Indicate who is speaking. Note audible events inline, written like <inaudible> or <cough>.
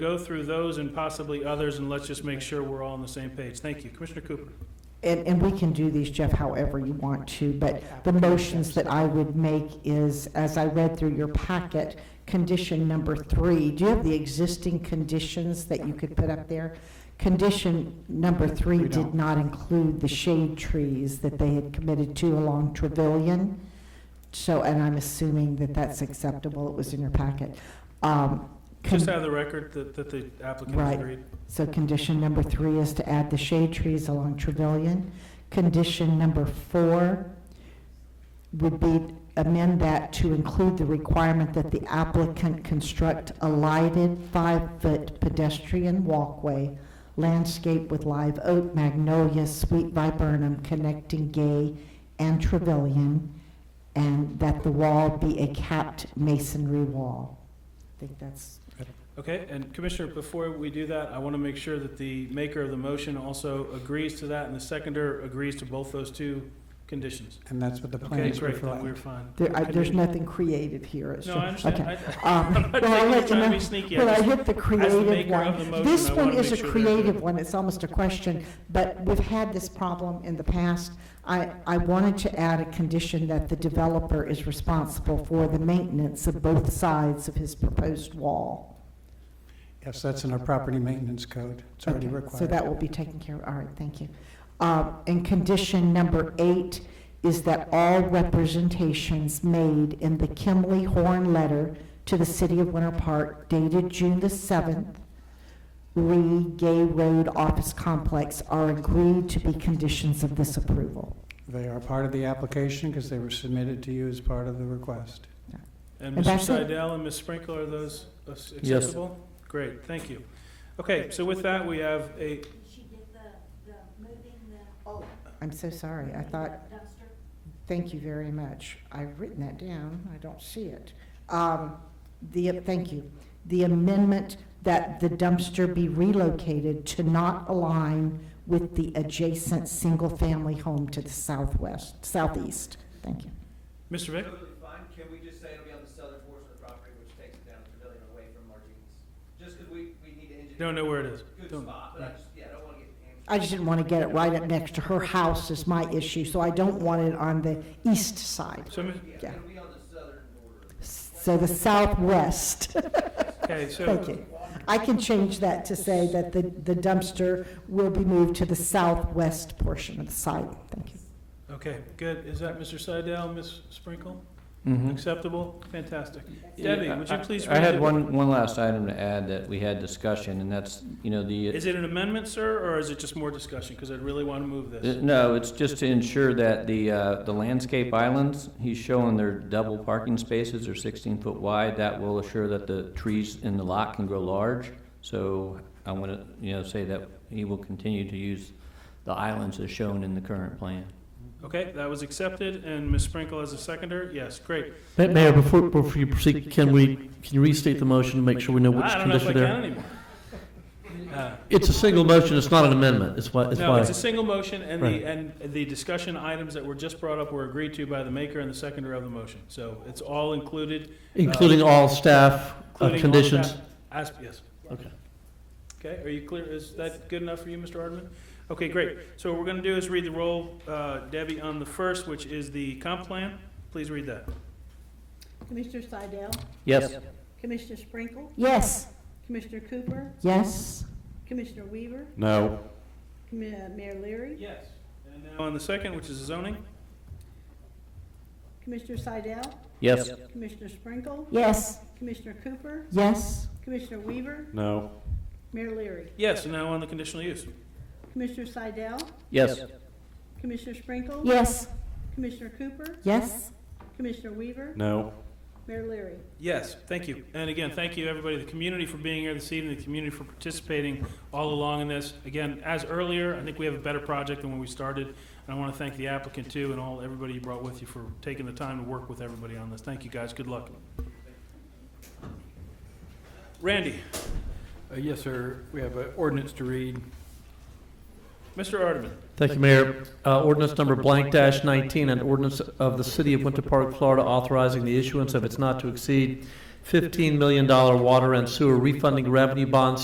Speaker 1: go through those and possibly others, and let's just make sure we're all on the same page. Thank you. Commissioner Cooper?
Speaker 2: And, and we can do these, Jeff, however you want to, but the motions that I would make is, as I read through your packet, condition number three, do you have the existing conditions that you could put up there? Condition number three
Speaker 3: We
Speaker 2: did
Speaker 3: don't.
Speaker 2: not include the shade trees that they had committed to along Trevilian. So, and I'm assuming that that's acceptable, it was in your packet. Um, con-
Speaker 1: Just out of the record that, that the applicant
Speaker 2: Right.
Speaker 1: agreed.
Speaker 2: so condition number three is to add the shade trees along Trevilian. Condition number four would be amend that to include the requirement that the applicant construct a lighted five-foot pedestrian walkway landscaped with live oak, magnolia, sweet viburnum connecting Gay and Trevilian, and that the wall be a capped masonry wall. I think that's
Speaker 1: Okay, and Commissioner, before we do that, I want to make sure that the maker of the motion also agrees to that, and the seconder agrees to both those two conditions.
Speaker 3: And that's what the
Speaker 1: Okay,
Speaker 3: plans
Speaker 1: great, then we're
Speaker 3: reflect.
Speaker 1: fine.
Speaker 2: There, I, there's
Speaker 1: Okay.
Speaker 2: nothing creative here. It's
Speaker 1: No,
Speaker 2: just-
Speaker 1: I understand.
Speaker 2: Okay.
Speaker 1: I-
Speaker 2: Um,
Speaker 1: <laughs> I'm not
Speaker 2: well, I'll
Speaker 1: taking
Speaker 2: let
Speaker 1: you
Speaker 2: you
Speaker 1: trying to
Speaker 2: know-
Speaker 1: be sneaky. I
Speaker 2: Well, I
Speaker 1: just-
Speaker 2: hit the creative
Speaker 1: maker of the
Speaker 2: one.
Speaker 1: motion,
Speaker 2: This
Speaker 1: I
Speaker 2: one
Speaker 1: wanna
Speaker 2: is
Speaker 1: make
Speaker 2: a
Speaker 1: sure they're good.
Speaker 2: creative one. It's almost a question, but we've had this problem in the past. I, I wanted to add a condition that the developer is responsible for the maintenance of both sides of his proposed wall.
Speaker 3: Yes, that's in our property maintenance code. It's already
Speaker 2: Okay,
Speaker 3: required.
Speaker 2: So that will be taken care of, all right, thank you. Um, And condition number eight is that all representations made in the Kimley Horn letter to the city of Winter Park dated June the 7th, Lee Gay Road Office Complex are agreed to be conditions of this approval.
Speaker 3: They are part of the application because they were submitted to you as part of the request.
Speaker 1: And
Speaker 2: And
Speaker 1: Mr.
Speaker 2: that's it.
Speaker 1: Seidel and Ms. Sprinkle, are those ac- accessible? Great, thank you. Okay, so with that, we have a,
Speaker 2: I'm so sorry, I thought, thank you very much. I've written that down, I don't see it. Um, The, thank you. The amendment that the dumpster be relocated to not align with the adjacent single-family home to the southwest, southeast. Thank you.
Speaker 1: Mr. Vick?
Speaker 4: Absolutely fine, can we just say it'll be on the southern portion of the property, which takes it down to Pavilion away from Martine's? Just because we, we need to engineer.
Speaker 1: Don't know where it is.
Speaker 4: Good
Speaker 1: Don't-
Speaker 4: spot, but I just, yeah, I don't want to get. hamstrung.
Speaker 2: I just didn't want to get it right up next to her house is my issue, so I don't want it on the east side.
Speaker 1: So, mi-
Speaker 2: yeah.
Speaker 4: Yeah, it'll be on the southern border.
Speaker 2: So the southwest.
Speaker 1: okay,
Speaker 2: Thank
Speaker 1: so,
Speaker 2: you. I can change that to say that the the dumpster will be moved to the southwest portion of the site. Thank you.
Speaker 1: okay, good. Is that Mr. Seidel, Ms. Sprinkle?
Speaker 5: Mm-hmm.
Speaker 1: Acceptable? Fantastic. Debbie, would you
Speaker 6: Mm-hmm. I-
Speaker 1: please
Speaker 6: I
Speaker 1: read
Speaker 6: had
Speaker 1: it?
Speaker 6: one, one last item to add that we had discussion, and that's, you know, the,
Speaker 1: Is it an amendment, sir, or is it just more discussion? Because I'd really want to move
Speaker 6: uh,
Speaker 1: this.
Speaker 6: no, it's just to ensure that the, uh, the landscape islands, he's showing their double parking spaces are sixteen foot wide. That will assure that the trees in the lot can grow large. So I want to, you know, say that he will continue to use the islands as shown in the current plan.
Speaker 1: Okay, that was accepted, and Ms. Sprinkle as a seconder? Yes, great.
Speaker 5: Ma- Mayor, before, before you proceed, can we, can you restate the motion to make sure we know which
Speaker 1: I don't know if I
Speaker 5: condition
Speaker 1: can
Speaker 5: they're?
Speaker 1: anymore. Uh,
Speaker 5: It's a single motion, it's not an amendment, it's why, it's
Speaker 1: No,
Speaker 5: why.
Speaker 1: it's a single motion, and
Speaker 5: Right.
Speaker 1: the, and the discussion items that were just brought up were agreed to by the maker and the seconder of the motion. So it's all included,
Speaker 5: Including all staff uh,
Speaker 1: including. all
Speaker 5: conditions?
Speaker 1: staff- As, yes.
Speaker 5: Okay.
Speaker 1: Okay, are you clear? Is that good enough for you, Mr. Hardman? Okay, great. So what we're going to do is read the roll, uh, Debbie, on the first, which is the comp plan. Please read that.
Speaker 7: Commissioner Seidel,
Speaker 5: Yes.
Speaker 7: Commissioner Sprinkle,
Speaker 2: Yes,
Speaker 7: Commissioner Cooper,
Speaker 2: yes,
Speaker 7: Commissioner Weaver,
Speaker 8: No.
Speaker 7: Commi- uh, Mayor Leary,
Speaker 1: Yes. And now on the second, which is zoning?
Speaker 7: Commissioner Seidel,
Speaker 5: Yes.
Speaker 7: Commissioner Sprinkle,
Speaker 2: yes,
Speaker 7: Commissioner Cooper,
Speaker 2: yes,
Speaker 7: Commissioner Weaver,
Speaker 8: No.
Speaker 7: Mayor Leary,
Speaker 1: Yes, and now on the conditional use.
Speaker 7: Commissioner Seidel,
Speaker 5: Yes.
Speaker 7: Commissioner Sprinkle,
Speaker 2: yes,
Speaker 7: Commissioner Cooper,
Speaker 2: yes,
Speaker 7: Commissioner Weaver,
Speaker 8: No.
Speaker 7: Mayor Leary.
Speaker 1: Yes, thank you. And again, thank you, everybody, the community for being here this evening, the community for participating all along in this. Again, as earlier, I think we have a better project than when we started. And I want to thank the applicant too and all, everybody you brought with you for taking the time to work with everybody on this. Thank you, guys. Good luck. Randy,
Speaker 9: Uh, Yes, sir. We have an ordinance to read.
Speaker 1: Mr. Ardeman,
Speaker 5: Thank you, Mayor. Uh, Ordinance number blank dash 19, an ordinance of the City of Winter Park, Florida authorizing the issuance of its not to exceed $15 million water and sewer refunding revenue bonds